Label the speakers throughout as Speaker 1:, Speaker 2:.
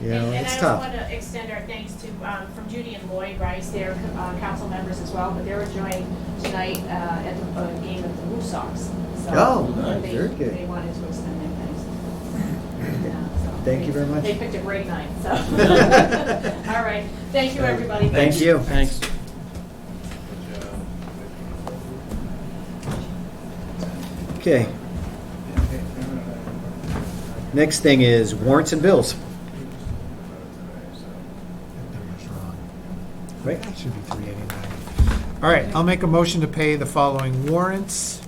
Speaker 1: You
Speaker 2: And-
Speaker 1: know,
Speaker 2: and
Speaker 1: it's
Speaker 2: I
Speaker 1: tough.
Speaker 2: also want to extend our thanks to, um, from Judy and Lloyd Rice, they're uh, council members as well, but they're enjoying tonight uh, at the uh, game of the Blue Sox. So
Speaker 1: Oh, nice,
Speaker 2: they-
Speaker 1: very good.
Speaker 2: They wanted to extend their thanks. Yeah, so
Speaker 1: Thank you very much.
Speaker 2: They picked a great night, so. All right, thank you, everybody.
Speaker 1: Thank you.
Speaker 3: Thanks.
Speaker 1: Okay. Next thing is warrants and bills,
Speaker 4: That number's wrong.
Speaker 1: right?
Speaker 4: It should be 389. All right, I'll make a motion to pay the following warrants.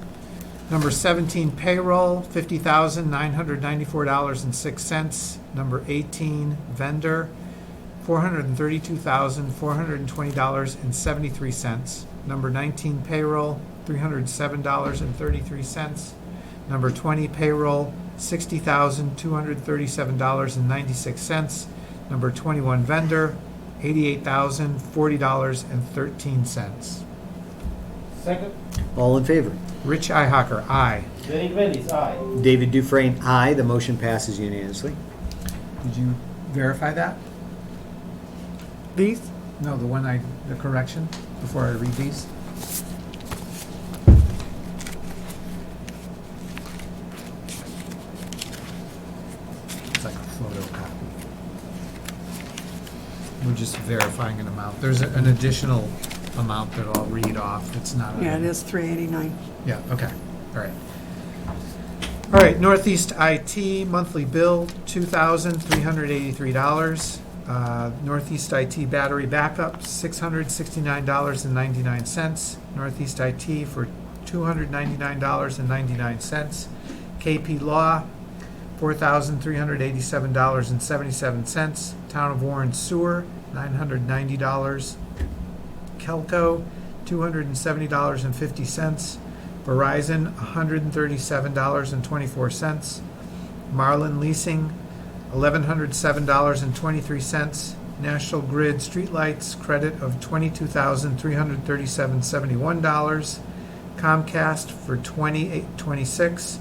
Speaker 4: Number 17 payroll, $50,994.06. Number 18 vendor, $432,420.73. Number 19 payroll, $307.33. Number 20 payroll, $60,237.96. Number 21 vendor, $88,040.13.
Speaker 5: Second,
Speaker 1: All in favor?
Speaker 4: Rich Ihacker, aye.
Speaker 5: Derek Bellis, aye.
Speaker 1: David Dufresne, aye. The motion passes unanimously.
Speaker 4: Did you verify that? These? No, the one I, the correction, before I read these. It's like a photocopy. We're just verifying an amount. There's a- an additional amount that I'll read off. It's not. a-
Speaker 6: Yeah, it is 389.
Speaker 4: yeah, okay, all right. All right, Northeast IT monthly bill, two thousand three hundred eighty-three dollars. Uh, Northeast IT battery backup, six hundred sixty-nine dollars and ninety-nine cents. Northeast IT for two hundred ninety-nine dollars and ninety-nine cents. KP Law, four thousand three hundred eighty-seven dollars and seventy-seven cents. Town of Warren Sewer, nine hundred ninety dollars Kelco, two hundred and seventy dollars and fifty cents. Verizon, one hundred and thirty-seven dollars and twenty-four cents. Marlin Leasing, eleven hundred seven dollars and twenty-three cents. National Grid Streetlights credit of twenty-two thousand three hundred thirty-seven seventy-one dollars. Comcast for twenty-eight twenty-six.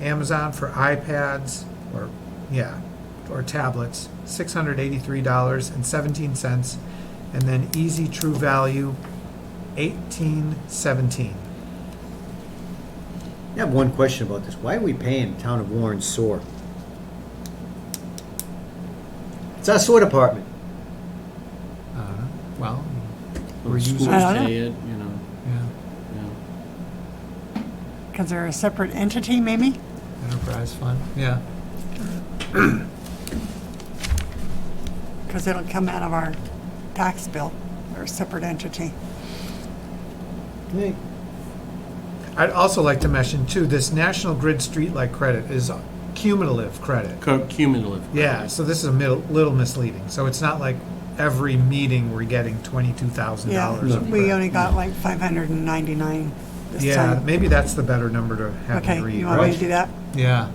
Speaker 4: Amazon for iPads or yeah, or tablets, six hundred eighty-three dollars and seventeen cents, and then Easy True Value, eighteen seventeen.
Speaker 1: I have one question about this. Why are we paying Town of Warren SOAR? It's our SOAR department.
Speaker 4: Uh, well,
Speaker 3: Or schools
Speaker 6: I don't know.
Speaker 3: pay it, you know,
Speaker 4: yeah,
Speaker 3: yeah.
Speaker 6: Because they're a separate entity, maybe?
Speaker 4: enterprise fund. Yeah,
Speaker 6: Because it'll come out of our tax bill, They're a separate entity.
Speaker 1: Hey,
Speaker 4: I'd also like to mention too this National Grid Streetlight credit is cumulative credit.
Speaker 3: Co- Cumulative.
Speaker 4: Yeah, so this is a middle, little misleading. So it's not like every meeting we're getting twenty-two thousand
Speaker 6: Yeah,
Speaker 4: dollars.
Speaker 6: we only got like 599 this
Speaker 4: Yeah,
Speaker 6: time.
Speaker 4: maybe that's the better number to have
Speaker 6: Okay,
Speaker 4: me read,
Speaker 6: you want me to
Speaker 4: right?
Speaker 6: do that?
Speaker 4: Yeah.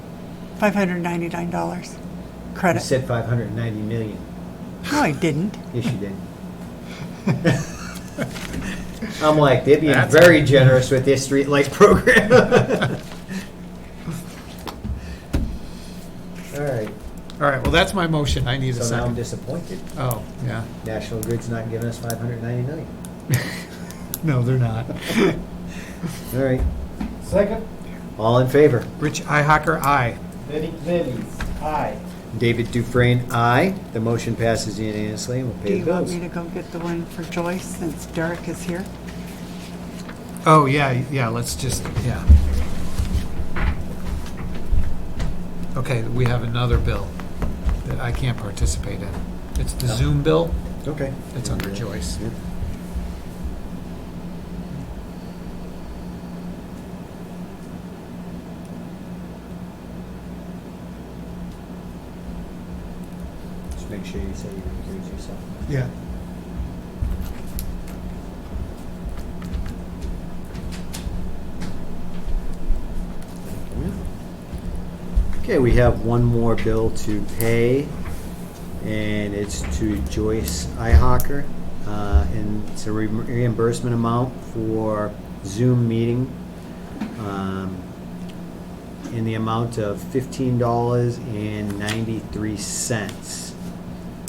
Speaker 6: $599
Speaker 1: You
Speaker 6: credit.
Speaker 1: said 590 million.
Speaker 6: No, I didn't.
Speaker 1: Yes, you did. I'm like, they're being
Speaker 4: That's-
Speaker 1: very generous with their streetlight program. All right,
Speaker 4: All right, well, that's my motion. I need a
Speaker 1: so now I'm
Speaker 4: second.
Speaker 1: disappointed.
Speaker 4: Oh, yeah.
Speaker 1: National Grid's not giving us 590 million.
Speaker 4: No, they're not.
Speaker 1: All right,
Speaker 5: Second,
Speaker 1: all in favor?
Speaker 4: Rich Ihacker, aye.
Speaker 5: Derek Bellis, aye.
Speaker 1: David Dufresne, aye. The motion passes unanimously, and we'll
Speaker 6: Do
Speaker 1: pay
Speaker 6: you
Speaker 1: the
Speaker 6: want
Speaker 1: bills.
Speaker 6: me to go get the one for Joyce since Derek is here?
Speaker 4: Oh, yeah, yeah, let's just, yeah. Okay, we have another bill that I can't participate in. It's the Zoom bill.
Speaker 1: Okay.
Speaker 4: It's under Joyce.
Speaker 1: Yeah. Just make sure you say you recuse yourself.
Speaker 4: Yeah.
Speaker 1: Okay, we have one more bill to pay, and it's to Joyce Ihawker, uh, and it's a re- reimbursement amount for Zoom meeting um, in the amount of fifteen dollars and ninety-three cents.